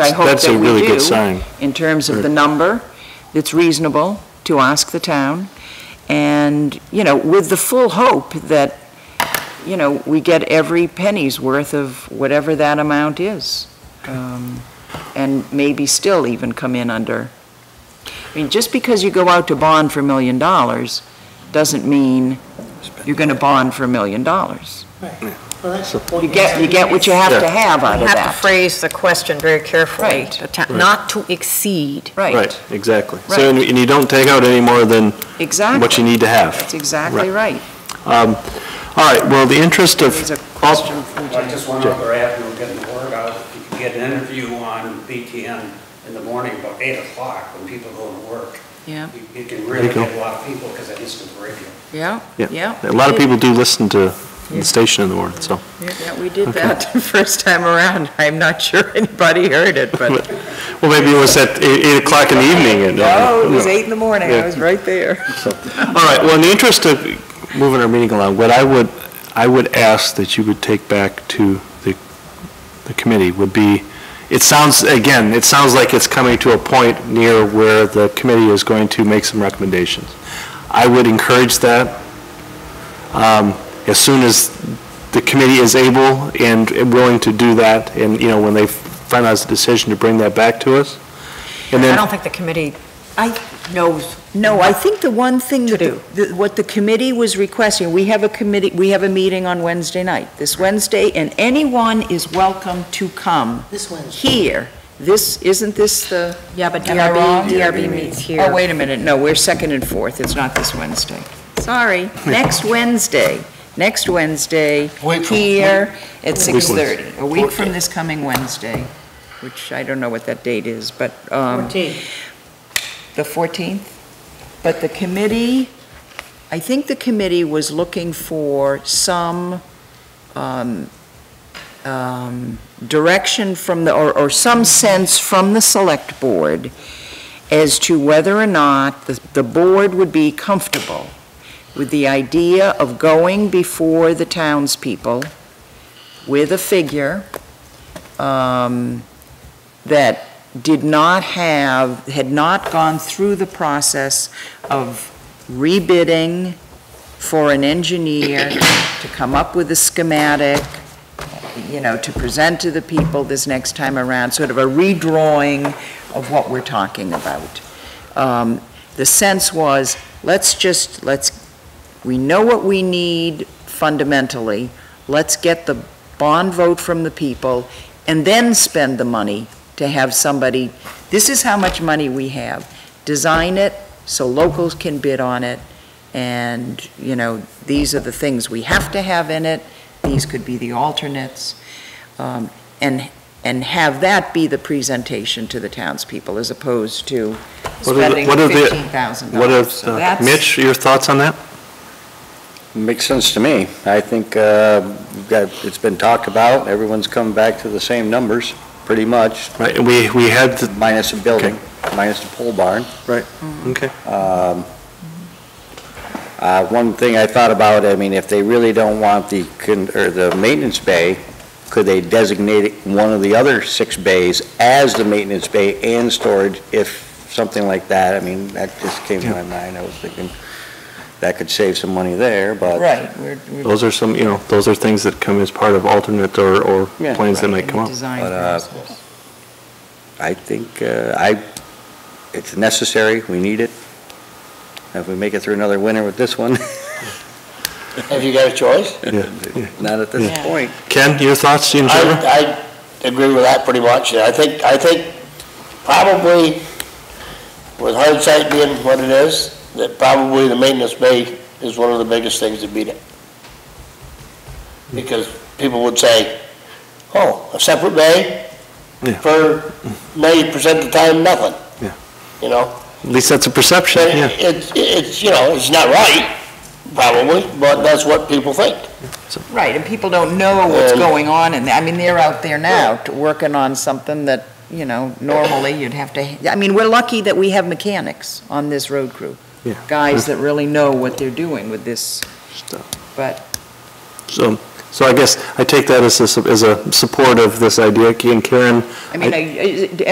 I hope That's that a we really good do, sign. in terms of the number, it's reasonable to ask the town, and, you know, with the full hope that, you know, we get every penny's worth of whatever that amount is, Um, and maybe still even come in under. I mean, just because you go out to bond for a million dollars, doesn't mean you're going to bond for a million dollars. Well, that's the point. You get, you get what you have to Yeah. have out You of have to that. phrase the question very carefully. Right. The ta- Not to exceed. Right, exactly. Right. So, and and you don't take out any more than Exactly. what you need to have. That's exactly right. Um, All right, well, the interest of... There's a question from Well, James. just one other avenue of getting the word out, you can get an interview on BTN in the morning about 8 o'clock when people go to work. Yeah, You- You can really you go. get a lot of people because they listen to the radio. yeah, yeah. A lot of people do listen to the station in the morning, so... Yeah, we did that. the first time around. I'm not sure anybody heard it, but. Well, maybe it was at eight eight o'clock in the evening. and, uh, no. eight in the morning. I Oh, was right there. All right, well, in the interest of moving our meeting along, what I would, I would ask that you would take back to the, the committee would be, it sounds, again, it sounds like it's coming to a point near where the committee is going to make some recommendations. I would encourage that. um, As soon as the committee is able and willing to do that, and, you know, when they finalize the decision to bring that back to us. And I then, don't think the committee knows. No, I think the one thing that, To the- the- what the committee was requesting, we have a committee, we have a meeting on Wednesday night, this Wednesday, and anyone is welcome to come This Wednesday. here. This, isn't this the? Yeah, but Am I wrong? DRB, DRB meets here. Oh, wait a minute, no, we're second and fourth, it's not this Wednesday. Sorry, next Wednesday, next Wednesday, Wait for- here at Which 6:30, a week from this coming Wednesday, which I don't know what that date is, but, um, the 14th. But the committee, I think the committee was looking for some um, um, direction from the, or or some sense from the Select Board as to whether or not the the board would be comfortable with the idea of going before the townspeople with a figure um, that did not have, had not gone through the process of rebidding for an engineer to come up with a schematic, you know, to present to the people this next time around, sort of a redrawing of what we're talking about. Um, The sense was, let's just, let's, we know what we need fundamentally, let's get the bond vote from the people, and then spend the money to have somebody, this is how much money we have, design it so locals can bid on it, and, you know, these are the things we have to have in it, these could be the alternates, um, and, and have that be the presentation to the townspeople as opposed to What are the- spending what are the- fifteen thousand what dollars. if, uh, Mitch, your thoughts on that? Makes sense to me. I think uh, we've got- it's been talked about, everyone's come back to the same numbers, pretty much, Right, and we, we had the minus a building, minus the pole barn. Okay. Um, uh, One thing I thought about, I mean, if they really don't want the, con- or the maintenance bay, could they designate it- one of the other six bays as the maintenance bay and storage if something like that? I mean, that just came to my mind. I was thinking that could save some money there, but. Right, we're, we're Those are some, you know, those are things that come as part of alternate or, or Yeah. plans that in might come the up. design But, uh, process. I think, uh, I, it's necessary, we need it. If we make it through another winter with this one, Have you got a choice? not at this Yeah. point. Ken, your thoughts in favor? I, I agree with that pretty much. I think, I think probably with hindsight being what it is, that probably the maintenance bay is one of the biggest things to beat it. Because people would say, oh, a separate bay Yeah. for ninety percent of the time, nothing. Yeah. You know? At least that's a perception, But yeah. it's, it's, you know, it's not right, probably, but that's what people think. Right, and people don't know what's Um, going on, and, I mean, they're out there now, t- working on something that, you know, normally you'd have to, I mean, we're lucky that we have mechanics on this road crew. Yeah. Guys that really know what they're doing with this, Stuff. but So, So I guess I take that as a, as a support of this idea, and Karen I mean, I- I-